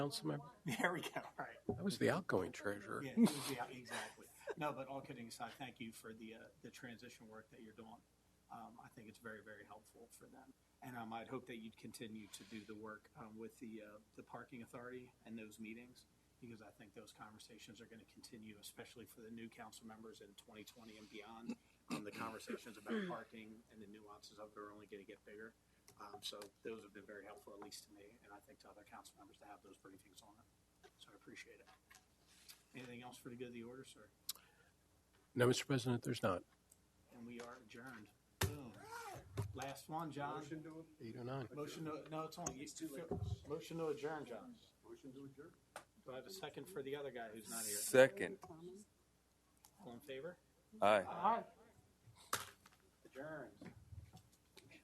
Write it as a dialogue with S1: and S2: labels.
S1: council member?
S2: There we go, right.
S1: I was the outgoing treasurer.
S2: Yeah, yeah, exactly. No, but all kidding aside, thank you for the, uh, the transition work that you're doing. Um, I think it's very, very helpful for them. And um, I'd hope that you'd continue to do the work, um, with the, uh, the parking authority and those meetings, because I think those conversations are gonna continue, especially for the new council members in twenty twenty and beyond. Um, the conversations about parking and the nuances of it are only gonna get bigger. Um, so those have been very helpful, at least to me, and I think to other council members to have those briefings on it. So I appreciate it. Anything else for the good of the order, sir?
S1: No, Mr. President, there's not.
S2: And we are adjourned. Boom. Last one, John.
S1: Eight oh nine.
S2: Motion to, no, it's only, motion to adjourn, John.
S3: Motion to adjourn.
S2: Do I have a second for the other guy who's not here?
S4: Second.
S2: All in favor?
S4: Aye.
S2: Aye. Adjourned.